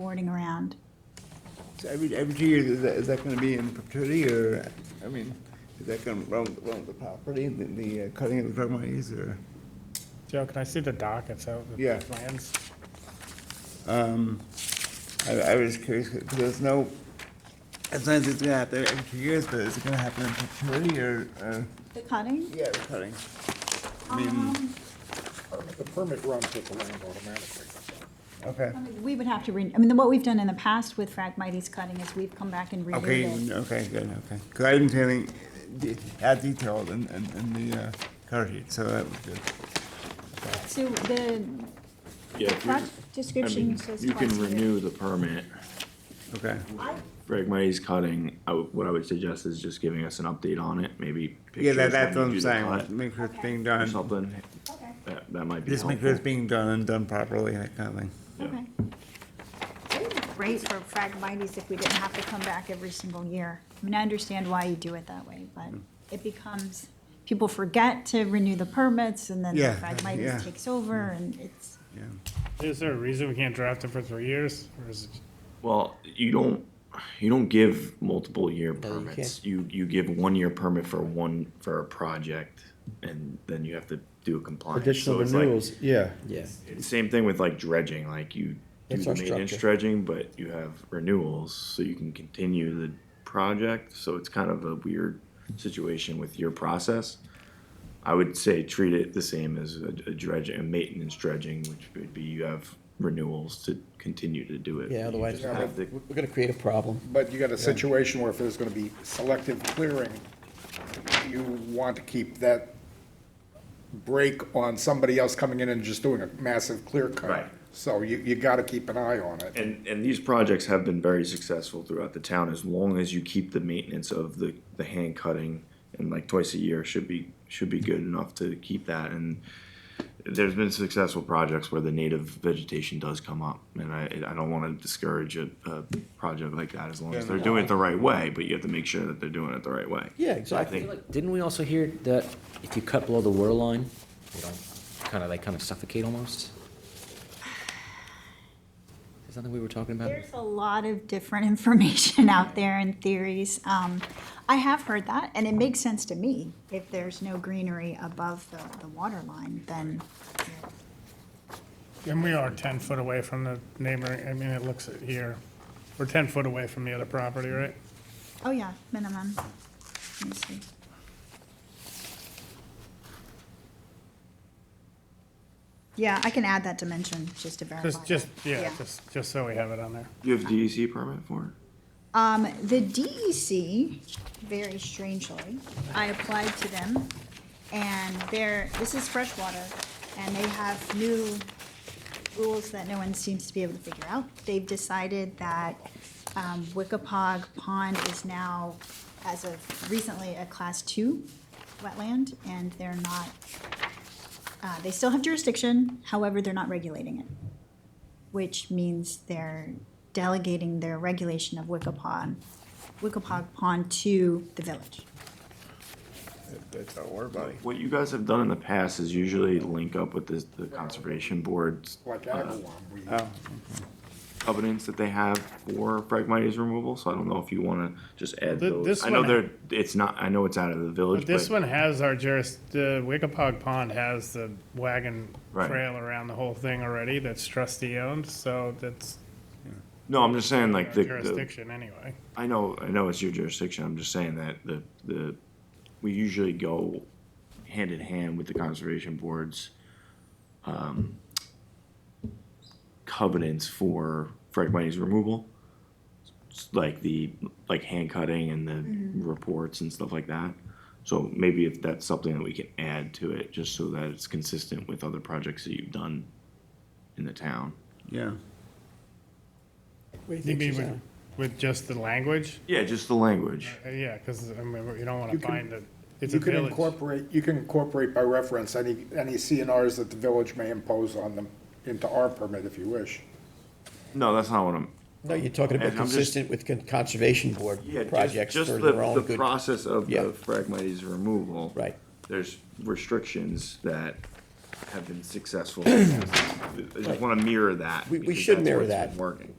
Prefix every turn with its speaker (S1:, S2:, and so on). S1: boarding around.
S2: So Every, every two years, is that, is that gonna be in perpetuity, or, I mean, is that gonna run, run the property, the, the uh, cutting of the driveways, or?
S3: Joe, can I see the dockets out? the
S2: Yeah.
S3: Plans?
S2: Um, I, I was curious, because there's no, as long as it's gonna happen every two years, but is it gonna happen in perpetuity, or, uh?
S1: The cutting?
S2: Yeah, the cutting. I mean,
S1: Um,
S4: The permit runs with the land automatically.
S2: okay,
S1: I mean, We would have to, re- I mean, what we've done in the past with Phragmites cutting is we've come back and renewed
S2: okay,
S1: it.
S2: okay, good, okay, because I didn't see anything de- as detailed in, in, in the, uh, cover sheet, so that was good.
S1: So the
S5: Yeah, if you're-
S1: project
S5: I mean,
S1: description says
S5: you
S1: twice
S5: can
S1: a year.
S5: renew the permit.
S2: Okay,
S1: I-
S5: Fragmites cutting, I would- what I would suggest is just giving us an update on it, maybe.
S2: yeah, that, that's
S5: pictures
S2: what
S5: when you
S2: I'm
S5: do the
S2: saying,
S5: cut
S2: make sure it's
S1: Okay.
S2: being
S5: Or
S2: done.
S5: something,
S1: Okay,
S5: that, that might be
S2: Just make sure it's
S5: helpful.
S2: being done and done properly, that kind of thing.
S5: Yeah.
S1: okay. It would be Great for Phragmites if we didn't have to come back every single year. I mean, I understand why you do it that way, but
S5: Mm.
S1: it becomes, people forget to renew the permits and then
S2: Yeah, yeah.
S1: Phragmites takes over
S5: Mm.
S1: and it's.
S2: Yeah.
S3: Is there a reason we can't draft it for three years, or is it?
S5: Well, you don't, you don't give multiple year permits. You, you give one year permit for one, for a project, and then you have to do a compliance.
S6: Additional
S5: So it's like-
S6: renewals, yeah.
S7: Yeah,
S5: Same thing with like dredging, like you do
S6: It's
S5: the
S6: our
S5: maintenance
S6: structure.
S5: dredging, but you have renewals, so you can continue the project, so it's kind of a weird situation with your process. I would say treat it the same as a a dredging, a maintenance dredging, which would be you have renewals to continue to do it.
S7: yeah, otherwise
S5: You
S7: we're
S5: just have to-
S7: gonna- we're gonna create a problem.
S4: But you got a situation where if there's gonna be selective clearing, you want to keep that break on somebody else coming in and just doing a massive clear cut.
S5: Right.
S4: So you, you gotta keep an eye on it.
S5: And, and these projects have been very successful throughout the town as long as you keep the maintenance of the, the hand cutting and like twice a year should be, should be good enough to keep that. And there's been successful projects where the native vegetation does come up. And I, I don't want to discourage a, a project like that as long as they're doing it the right way, but you have to make sure that they're doing it the right way.
S7: Yeah,
S5: So I
S7: exactly.
S5: think-
S7: Didn't we also hear that if you cut below the water line, you don't, kind of, they kind of suffocate almost? Is that what we were talking about?
S1: There's a lot of different information out there and theories. Um, I have heard that, and it makes sense to me. If there's no greenery above the, the water line, then
S3: And we are ten foot away from the neighboring, I mean, it looks at here, we're ten foot away from the other property, right?
S1: Oh, yeah, minimum. Let me see. Yeah, I can add that dimension just to verify.
S3: Just, just,
S1: that.
S3: yeah, just, just so we have it on there.
S5: You have DEC permit for it?
S1: Um, the DEC, very strangely, I applied to them, and they're, this is freshwater, and they have new rules that no one seems to be able to figure out. They've decided that, um, Wickapog Pond is now, as of recently, a class two wetland, and they're not, uh, they still have jurisdiction, however, they're not regulating it which means they're delegating their regulation of Wickapon, Wickapog Pond to the village.
S2: That- That's our water body.
S5: What you guys have done in the past is usually link up with this, the conservation boards.
S4: Like
S5: uh,
S4: Agawam, we,
S5: covenants that they have for Phragmites removal, so I don't know if you wanna just add
S3: Th-
S5: those.
S3: this
S5: I know
S3: one-
S5: they're, it's not, I know it's out of the village,
S3: But this
S5: but
S3: one has our juris, the Wickapog Pond has the wagon
S5: Right.
S3: trail around the whole thing already that's trustee owned, so that's
S5: no, I'm just saying
S3: our
S5: like the, the,
S3: jurisdiction anyway.
S5: I know, I know it's your jurisdiction, I'm just saying that the, the, we usually go hand in hand with the conservation boards, um, covenants for Phragmites removal. It's Like the, like hand cutting and the reports and stuff like that. So maybe if that's something that we can add to it, just so that it's consistent with other projects that you've done in the town.
S2: Yeah.
S6: What do you
S3: You
S6: think,
S3: mean with,
S6: Suzanne?
S3: with just the language?
S5: Yeah, just the language.
S3: Uh, Yeah, because, I mean, you don't want to
S4: You can-
S3: bind it, it's a
S4: you can
S3: village.
S4: incorporate, you can incorporate by reference any, any CNRs that the village may impose on them into our permit if you wish.
S5: No, that's not what I'm,
S6: No, you're talking about
S5: And I'm just-
S6: consistent with con- conservation board
S5: Yeah, just-
S6: projects
S5: just
S6: for
S5: the-
S6: their own
S5: The
S6: good.
S5: process of
S6: Yeah.
S5: the Phragmites removal.
S6: Right.
S5: There's restrictions that have been successful. I just wanna mirror that.
S6: We- we
S5: because
S6: should
S5: that's
S6: mirror
S5: what's been
S6: that.
S5: Working.